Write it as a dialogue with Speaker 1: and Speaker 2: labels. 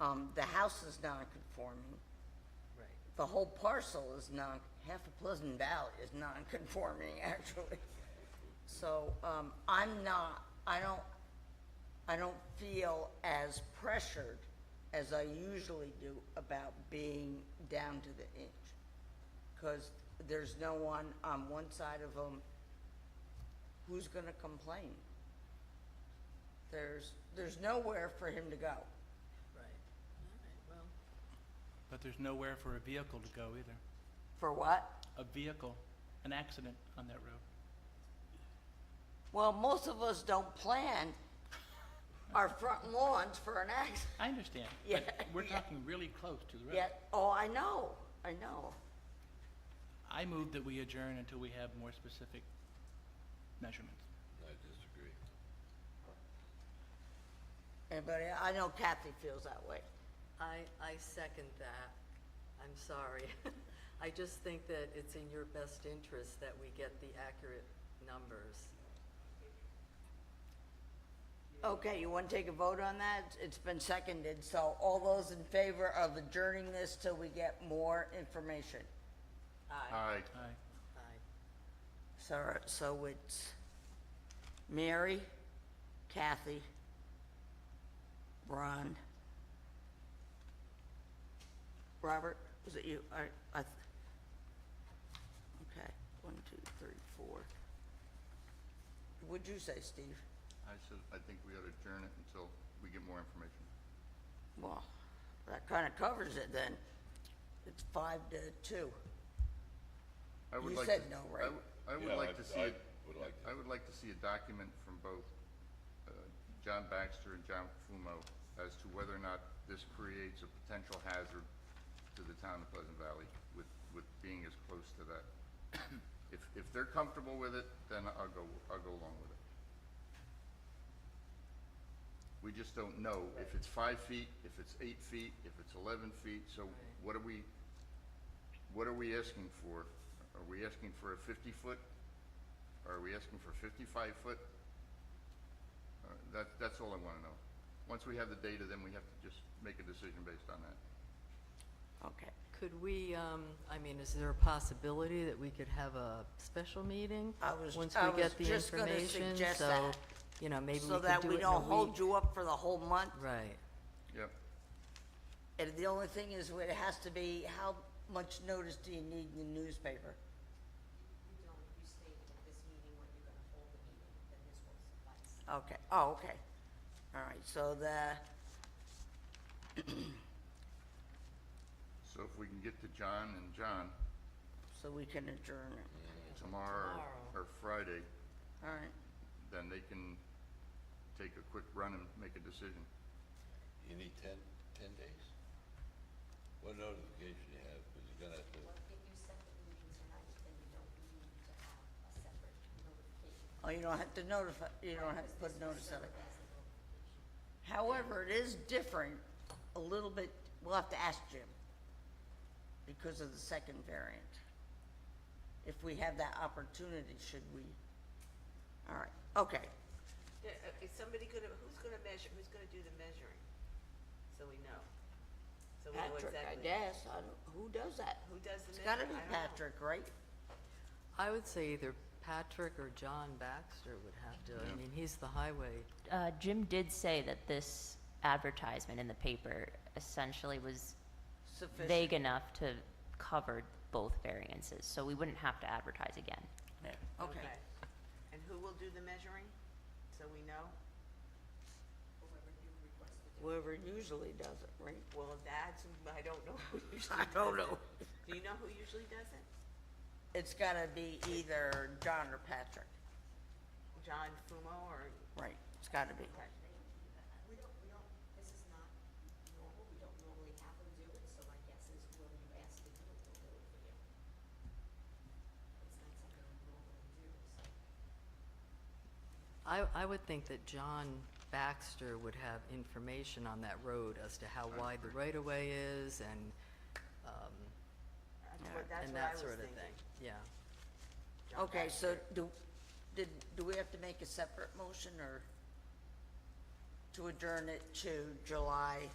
Speaker 1: Um, the house is non-conforming,
Speaker 2: Right.
Speaker 1: the whole parcel is non, half of Pleasant Valley is non-conforming, actually. So, um, I'm not, I don't, I don't feel as pressured as I usually do about being down to the inch. Cause there's no one on one side of them who's gonna complain. There's, there's nowhere for him to go.
Speaker 2: Right. All right, well,
Speaker 3: But there's nowhere for a vehicle to go either.
Speaker 1: For what?
Speaker 3: A vehicle, an accident on that road.
Speaker 1: Well, most of us don't plan our front lawns for an accident
Speaker 3: I understand,
Speaker 1: Yeah,
Speaker 3: but we're
Speaker 1: yeah.
Speaker 3: talking really close to the road.
Speaker 1: yet. Oh, I know, I know.
Speaker 3: I move that we adjourn until we have more specific measurements.
Speaker 4: I disagree.
Speaker 1: Anybody, I know Kathy feels that way.
Speaker 2: I, I second that. I'm sorry. I just think that it's in your best interest that we get the accurate numbers.
Speaker 1: Okay, you want to take a vote on that? It's been seconded, so all those in favor of adjourning this till we get more information?
Speaker 2: Aye.
Speaker 4: Aye.
Speaker 3: Aye.
Speaker 2: Aye.
Speaker 1: So, so it's Mary, Kathy, Ron, Robert, was it you? I, I, th- okay, one, two, three, four. What'd you say, Steve?
Speaker 4: I said, I think we ought to adjourn it until we get more information.
Speaker 1: Well, that kind of covers it then. It's five to two.
Speaker 4: I would
Speaker 1: You
Speaker 4: like
Speaker 1: said
Speaker 4: to-
Speaker 1: no,
Speaker 4: I
Speaker 1: right?
Speaker 4: w- I
Speaker 5: Yeah,
Speaker 4: would like
Speaker 5: I-
Speaker 4: to see,
Speaker 5: I
Speaker 4: it-
Speaker 5: would like
Speaker 4: I would like to see a document from both uh, John Baxter and John Fumo as to whether or not this creates a potential hazard to the town of Pleasant Valley with, with being as close to that. If, if they're comfortable with it, then I'll go, I'll go along with it. We just don't know if it's five feet, if it's eight feet, if it's eleven feet, so what are we, what are we asking for? Are we asking for a fifty foot? Are we asking for fifty-five foot? Uh, That, that's all I wanna know. Once we have the data, then we have to just make a decision based on that.
Speaker 1: Okay.
Speaker 2: Could we, um, I mean, is there a possibility that we could have a special meeting?
Speaker 1: I was-
Speaker 2: Once
Speaker 1: I
Speaker 2: we
Speaker 1: was
Speaker 2: get the
Speaker 1: just gonna
Speaker 2: information,
Speaker 1: suggest
Speaker 2: so,
Speaker 1: that.
Speaker 2: you know, maybe we could do
Speaker 1: So that
Speaker 2: it
Speaker 1: we
Speaker 2: in a
Speaker 1: don't hold
Speaker 2: week.
Speaker 1: you up for the whole month?
Speaker 2: Right,
Speaker 4: Yep,
Speaker 1: And the only thing is, it has to be, how much notice do you need in the newspaper?
Speaker 6: you don't, you state at this meeting when you're gonna hold the meeting, then this will suffice.
Speaker 1: Okay, oh, okay. All right, so the,
Speaker 4: so if we can get to John and John
Speaker 1: so we can adjourn it.
Speaker 4: tomorrow
Speaker 2: Tomorrow.
Speaker 4: or Friday,
Speaker 1: All right,
Speaker 4: then they can take a quick run and make a decision.
Speaker 5: You need ten, ten days? What notification you have, because you're gonna have to,
Speaker 6: Well, if you set the meeting tonight, then you don't need to have a separate notification.
Speaker 1: oh, you don't have to notify, you don't have to put notice of it. However, it is different, a little bit, we'll have to ask Jim, because of the second variant. If we have that opportunity, should we? All right, okay,
Speaker 7: Yeah, uh, is somebody gonna, who's gonna measure, who's gonna do the measuring? So we know. So we know
Speaker 1: Patrick, I
Speaker 7: exactly.
Speaker 1: guess, I don't, who does that?
Speaker 7: Who does the
Speaker 1: It's gotta
Speaker 7: measuring?
Speaker 1: be
Speaker 7: I don't know.
Speaker 1: Patrick, right?
Speaker 2: I would say either Patrick or John Baxter would have to, I mean, he's the highway,
Speaker 8: uh, Jim did say that this advertisement in the paper essentially was
Speaker 1: Sufficient.
Speaker 8: vague enough to cover both variances, so we wouldn't have to advertise again.
Speaker 1: Okay,
Speaker 7: And who will do the measuring? So we know?
Speaker 1: whoever usually does it, right?
Speaker 7: Well, that's, I don't know who usually
Speaker 1: I
Speaker 7: does it.
Speaker 1: don't know.
Speaker 7: Do you know who usually does it?
Speaker 1: It's gotta be either John or Patrick,
Speaker 7: John Fumo or,
Speaker 1: right, it's gotta be.
Speaker 7: okay.
Speaker 6: We don't, we don't, this is not normal, we don't normally have them do it, so my guess is when you ask to do it, they'll do it for you. It's not something we normally do, so.
Speaker 2: I, I would think that John Baxter would have information on that road as to how wide the right-of-way is and, um,
Speaker 7: That's what, that's
Speaker 2: and
Speaker 7: what I
Speaker 2: that
Speaker 7: was
Speaker 2: sort of
Speaker 7: thinking.
Speaker 2: thing. Yeah.
Speaker 7: John
Speaker 1: Okay,
Speaker 7: Baxter.
Speaker 1: so do, did, do we have to make a separate motion or to adjourn it to July